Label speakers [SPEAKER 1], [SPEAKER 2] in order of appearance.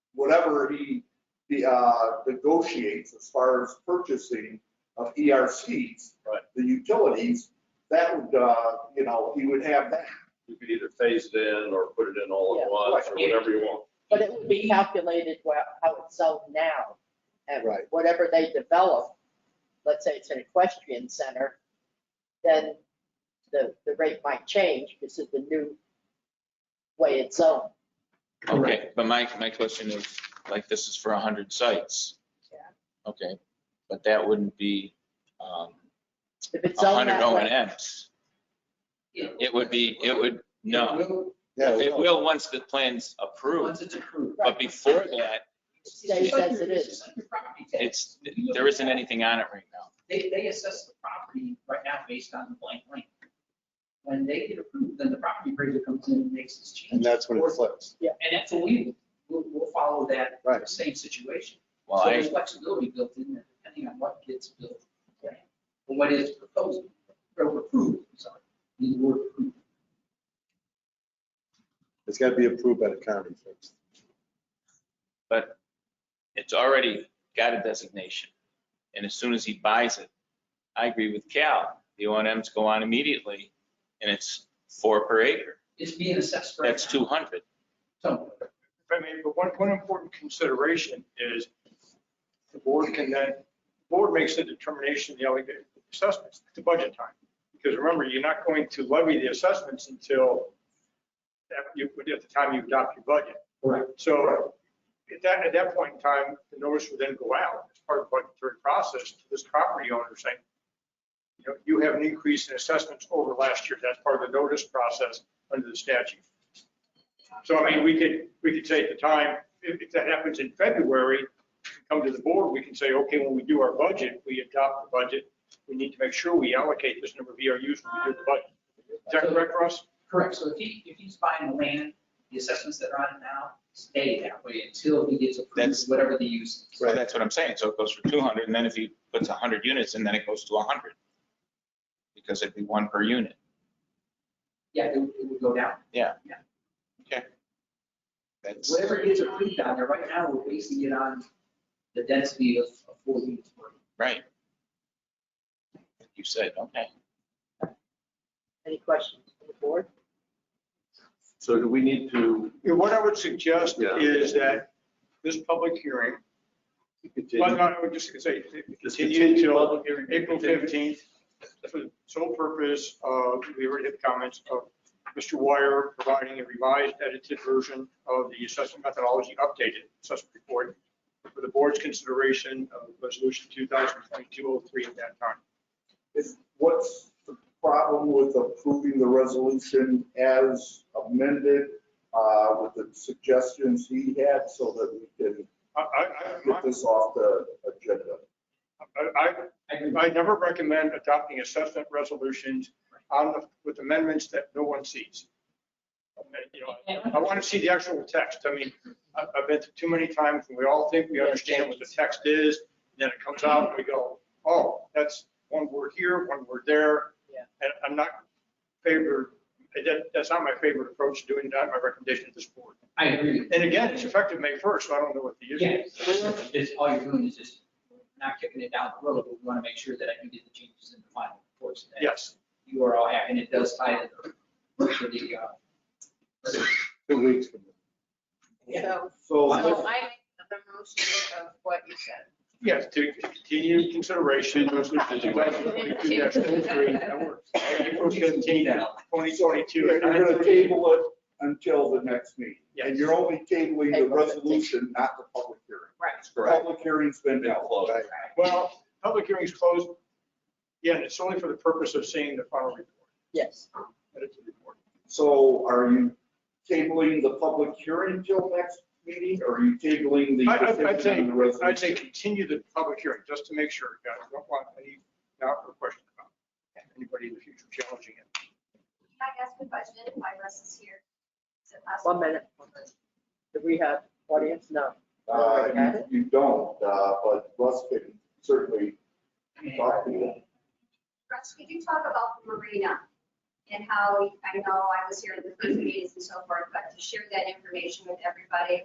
[SPEAKER 1] whatever he, the, uh, negotiates as far as purchasing of ERCs.
[SPEAKER 2] Right.
[SPEAKER 1] The utilities, that would, uh, you know, he would have that.
[SPEAKER 2] You could either phase it in or put it in all
[SPEAKER 3] Yeah.
[SPEAKER 2] at once or whatever you want.
[SPEAKER 3] But it would be calculated wha- how it's sold now. And
[SPEAKER 1] Right.
[SPEAKER 3] whatever they develop, let's say it's an equestrian center, then the, the rate might change because of the new way it's sold.
[SPEAKER 4] Okay, but my, my question is, like, this is for 100 sites.
[SPEAKER 3] Yeah.
[SPEAKER 4] Okay, but that wouldn't be um,
[SPEAKER 3] If it's sold
[SPEAKER 4] 100
[SPEAKER 3] that
[SPEAKER 4] O
[SPEAKER 3] way,
[SPEAKER 4] and Ms. It would be, it would, no,
[SPEAKER 1] Yeah,
[SPEAKER 4] it will once the plan's approved,
[SPEAKER 5] it's approved.
[SPEAKER 4] but before that,
[SPEAKER 3] stays as it is.
[SPEAKER 4] it's, there isn't anything on it right now.
[SPEAKER 5] They, they assess the property right now based on the blank land. When they get approved, then the property appraiser comes in and makes this change.
[SPEAKER 6] And that's when it flips.
[SPEAKER 5] And that's what we, we'll, we'll follow that
[SPEAKER 6] Right.
[SPEAKER 5] same situation.
[SPEAKER 4] Well,
[SPEAKER 5] So there's
[SPEAKER 4] I,
[SPEAKER 5] flexibility built in there, depending on what gets built. Or what is proposed, or approved, I'm sorry, the word approved.
[SPEAKER 6] It's got to be approved by the county first.
[SPEAKER 4] it's already got a designation. And as soon as he buys it, I agree with Cal, the O and Ms go on immediately, and it's four per acre.
[SPEAKER 5] It's being assessed right now.
[SPEAKER 4] That's 200.
[SPEAKER 5] So,
[SPEAKER 7] I mean, but one, one important consideration is the board can then, the board makes the determination, the allocated assessments at the budget time. Because remember, you're not going to levy the assessments until that you, at the time you adopt your budget.
[SPEAKER 5] Correct.
[SPEAKER 7] So at that, at that point in time, the notice would then go out as part of the budgetary process to this property owner saying, you know, you have an increase in assessments over last year. That's part of the notice process under the statute. So I mean, we could, we could say at the time, if, if that happens in February, come to the board, we can say, okay, when we do our budget, we adopt the budget. We need to make sure we allocate this number of ERUs when we do the budget. Is that correct, Russ?
[SPEAKER 5] Correct, so if he, if he's buying the land, the assessments that are on it now stay that way until he gets
[SPEAKER 4] That's-
[SPEAKER 5] approved, whatever the use. is.
[SPEAKER 4] So that's what I'm saying. So it goes for 200, and then if he puts 100 units in, then it goes to 100. Because it'd be one per unit.
[SPEAKER 5] Yeah, it would- it would go down.
[SPEAKER 4] That's,
[SPEAKER 5] Whatever gets approved down there, right now, we're basing it on the density of of four units. per acre.
[SPEAKER 4] right. You said, okay.
[SPEAKER 3] Any questions from the board?
[SPEAKER 2] So do we need to
[SPEAKER 7] Yeah, What I would suggest
[SPEAKER 2] Yeah.
[SPEAKER 7] is that this public hearing, well, no, I would just say,
[SPEAKER 2] Just
[SPEAKER 7] continue
[SPEAKER 2] continue
[SPEAKER 7] until
[SPEAKER 2] public hearing.
[SPEAKER 7] April 15th, for the sole purpose of, we already had comments of Mr. Wire providing a revised edited version of the assessment methodology updated assessment report for the board's consideration of resolution 2022-03 at that time.
[SPEAKER 1] Is, what's the problem with approving the resolution as amended, uh, with the suggestions he had so that we can
[SPEAKER 7] I, I- I,
[SPEAKER 1] get
[SPEAKER 7] my-
[SPEAKER 1] this off the agenda?
[SPEAKER 7] I, I- I never recommend adopting assessment resolutions on, the- with amendments that no one sees. You know, I want to see the actual text. I mean, I- I've been through too many times and we all think we understand what the text is. Then it comes out and we go, oh, that's one word here, one word there.
[SPEAKER 3] Yeah.
[SPEAKER 7] And I'm not favored, that, that's not my favorite approach to doing that, my recommendation to this board.
[SPEAKER 5] I agree.
[SPEAKER 7] And again, it's effective May 1st, so I don't know what the issue
[SPEAKER 5] Yeah,
[SPEAKER 7] is.
[SPEAKER 5] it's, all you're doing is just not kicking it down the road, but we want to make sure that I can get the changes in the final reports. that
[SPEAKER 7] Yes.
[SPEAKER 5] You are all happy, and it does tie to the, to the, uh,
[SPEAKER 6] Two weeks from now.
[SPEAKER 8] So, so I
[SPEAKER 7] So,
[SPEAKER 8] make the motion of what you said.
[SPEAKER 7] yes, to continue consideration, resolution 2022-03, that works. April 15th, 2022.
[SPEAKER 1] You're gonna table it until the next meeting. And you're only tabling the
[SPEAKER 3] April 15th.
[SPEAKER 1] resolution, not the public hearing.
[SPEAKER 8] Right.
[SPEAKER 1] Public hearing's been held.
[SPEAKER 6] Right.
[SPEAKER 7] Well, public hearing's closed. Yeah, and it's only for the purpose of seeing the final report,
[SPEAKER 3] Yes.
[SPEAKER 7] edited report.
[SPEAKER 1] So are you tabling the public hearing until next meeting, or are you tabling the
[SPEAKER 7] I- I- I'd
[SPEAKER 1] petition and the resolution?
[SPEAKER 7] I'd say continue the public hearing, just to make sure, guys, don't want any doubt or question about anybody in the future challenging it.
[SPEAKER 9] Can I ask a question while Russ is here? Is it possible?
[SPEAKER 3] One minute. Do we have audience? No.
[SPEAKER 1] Uh, you- You don't, uh, but Russ can certainly talk to you.
[SPEAKER 9] Russ, could you talk about the marina and how, I know I was here in the first meetings and so forth, but to share that information with everybody